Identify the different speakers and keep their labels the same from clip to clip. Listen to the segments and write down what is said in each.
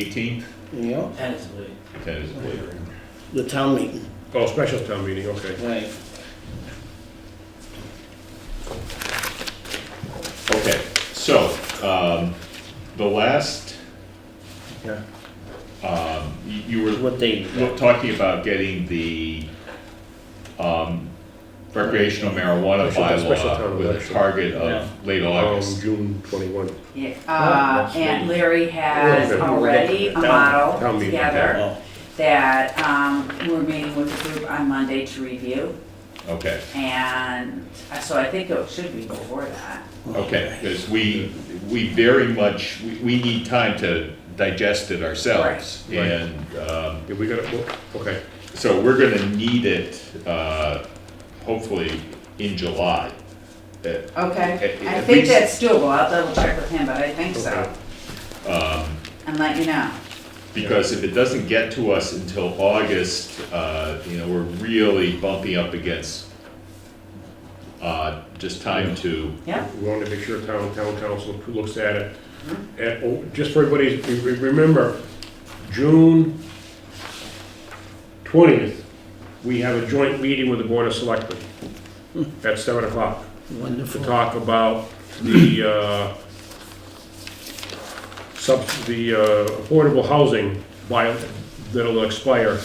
Speaker 1: 18th,
Speaker 2: Yeah,
Speaker 3: Tentatively.
Speaker 1: tentatively.
Speaker 2: the town meeting,
Speaker 4: Oh, special town meeting, okay.
Speaker 2: right.
Speaker 1: Okay, so, um, the last,
Speaker 2: Yeah.
Speaker 1: um, y- you were
Speaker 2: What they,
Speaker 1: lo- talking about getting the, um, recreational marijuana
Speaker 4: Special- special
Speaker 1: bylaw
Speaker 4: town
Speaker 1: with a
Speaker 4: election.
Speaker 1: target
Speaker 2: Yeah.
Speaker 1: of late
Speaker 4: Um,
Speaker 1: August.
Speaker 4: June twenty-one.
Speaker 3: Yeah, uh, and Larry has
Speaker 4: Okay.
Speaker 3: already a
Speaker 2: Town-
Speaker 4: town
Speaker 3: model
Speaker 4: meeting,
Speaker 3: together
Speaker 2: oh,
Speaker 3: that, um, we're meeting with the group on Monday to review.
Speaker 4: Oh,
Speaker 1: Okay,
Speaker 3: And uh, so I think it should be before that.
Speaker 1: okay, because we, we very much, we, we need time to digest it ourselves.
Speaker 4: Right. Right.
Speaker 1: And, um,
Speaker 4: Yeah, we got it, okay.
Speaker 1: So we're gonna need it, uh, hopefully in July. Uh,
Speaker 3: Okay,
Speaker 1: At- at
Speaker 3: I think
Speaker 1: least-
Speaker 3: that's doable, I'll double check with him, but I think so.
Speaker 4: Okay.
Speaker 3: And let you know.
Speaker 1: Because if it doesn't get to us until August, uh, you know, we're really bumping up against, uh, just time to,
Speaker 3: Yeah,
Speaker 4: We wanted to make sure town, town council looks at it. And, oh, just for everybody's, re- re- remember, June twentieth, we have a joint meeting with the Board of Selectmen at seven o'clock to
Speaker 2: wonderful.
Speaker 4: talk about the, uh, sub, the, uh, affordable housing by, that'll expire.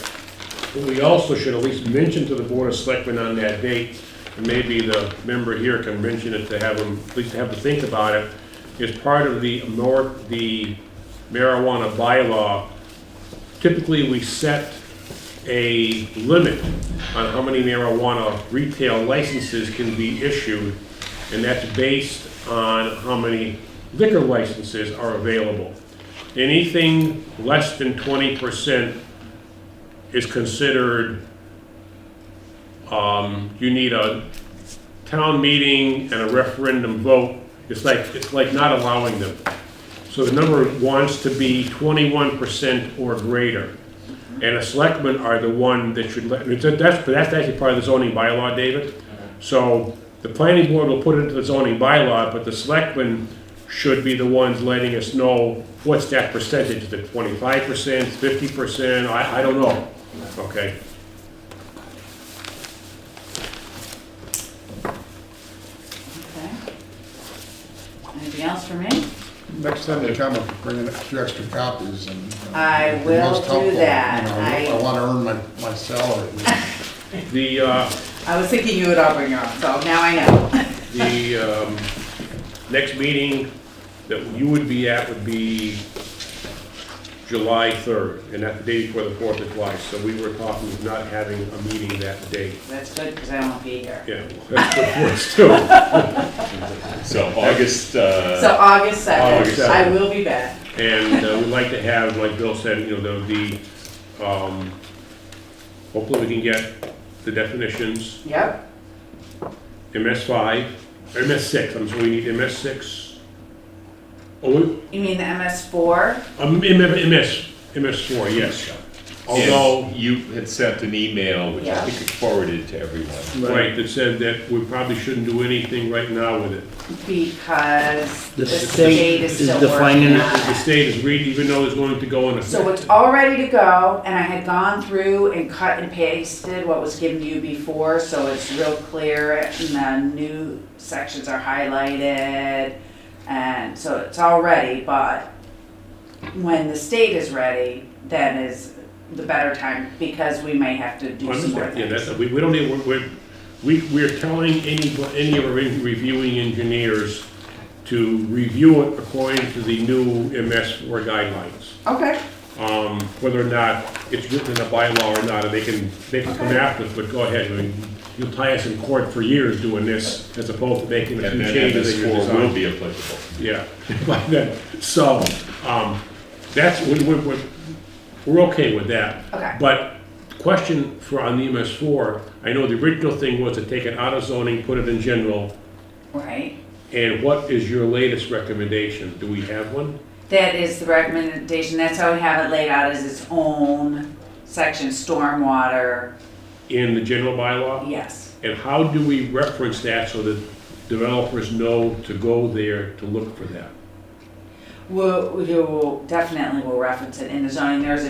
Speaker 4: But we also should at least mention to the Board of Selectmen on that date, and maybe the member here can mention it to have them, at least have them think about it, is part of the mar- the marijuana bylaw, typically we set a limit on how many marijuana retail licenses can be issued, and that's based on how many liquor licenses are available. Anything less than twenty percent is considered, um, you need a town meeting and a referendum vote. It's like, it's like not allowing them. So the number wants to be twenty-one percent or greater. And the selectmen are the one that should let, it's a- that's, but that's actually part of the zoning bylaw, David. So the planning board will put it into the zoning bylaw, but the selectmen should be the ones letting us know what's that percentage, is it twenty-five percent, fifty percent, I, I don't know. Okay,
Speaker 3: okay. Anything else for me?
Speaker 5: Next time you come, I'll bring in a few extra copies and. uh,
Speaker 3: I
Speaker 5: it'd be
Speaker 3: will
Speaker 5: most
Speaker 3: do
Speaker 5: helpful, you
Speaker 3: that.
Speaker 5: know,
Speaker 3: I-
Speaker 5: I wanna earn my, my salary.
Speaker 4: the, uh,
Speaker 3: I was thinking you would all bring your own, so now I know.
Speaker 4: The um, next meeting that you would be at would be July 3rd, and that's the day before the 4th of July. So we were talking of not having a meeting that day.
Speaker 3: That's good, because I won't be here.
Speaker 4: Yeah, that's what it was too.
Speaker 1: so August,
Speaker 3: So
Speaker 1: uh,
Speaker 3: August
Speaker 4: August
Speaker 3: seventh, I
Speaker 4: 7th.
Speaker 3: will be back.
Speaker 4: And uh, we'd like to have, like Bill said, you know, the, the, um, hopefully we can get the definitions,
Speaker 3: Yep,
Speaker 4: MS5, or MS6, I'm sorry, we need MS6. Oh, we-
Speaker 3: you mean the MS four?
Speaker 4: um, MS, MS4, yes. Although,
Speaker 1: although you had sent an email, which I
Speaker 3: Yeah.
Speaker 1: think I forwarded to everyone.
Speaker 4: Right, that said that we probably shouldn't do anything right now with it.
Speaker 3: Because the
Speaker 2: The state
Speaker 3: state is
Speaker 2: is
Speaker 3: still
Speaker 2: defining
Speaker 3: working
Speaker 2: it.
Speaker 3: on
Speaker 4: The
Speaker 3: it.
Speaker 4: state is reading, even though it's going to go in
Speaker 3: So
Speaker 4: effect.
Speaker 3: it's all ready to go, and I had gone through and cut and pasted what was given to you before, so it's real clear, and the new sections are highlighted, and so it's all ready, but when the state is ready, then is the better time, because we may have to do some more
Speaker 4: Understand, yeah,
Speaker 3: things.
Speaker 4: that's, we, we don't need, we're- we're, we, we're telling any, any of our reviewing engineers to review it according to the new MS four guidelines.
Speaker 3: Okay,
Speaker 4: Um, whether or not it's written in a bylaw or not, and they can, they can come
Speaker 3: Okay.
Speaker 4: after us, but go ahead, I mean, you'll tie us in court for years doing this, as opposed to making a
Speaker 1: And
Speaker 4: few
Speaker 1: then
Speaker 4: changes.
Speaker 1: MS
Speaker 4: in your
Speaker 1: four
Speaker 4: design.
Speaker 1: will be applicable.
Speaker 4: Yeah, but then, so, um, that's, we, we, we- we're okay with that.
Speaker 3: Okay.
Speaker 4: But question for on the MS four, I know the original thing was to take it out of zoning, put it in general,
Speaker 3: right.
Speaker 4: and what is your latest recommendation? Do we have one?
Speaker 3: That is the recommendation, that's how we have it laid out as its own section, stormwater,
Speaker 4: In the general bylaw?
Speaker 3: yes.
Speaker 4: And how do we reference that so that developers know to go there to look for that?
Speaker 3: We'll, we will, definitely will reference it in the zoning, there's a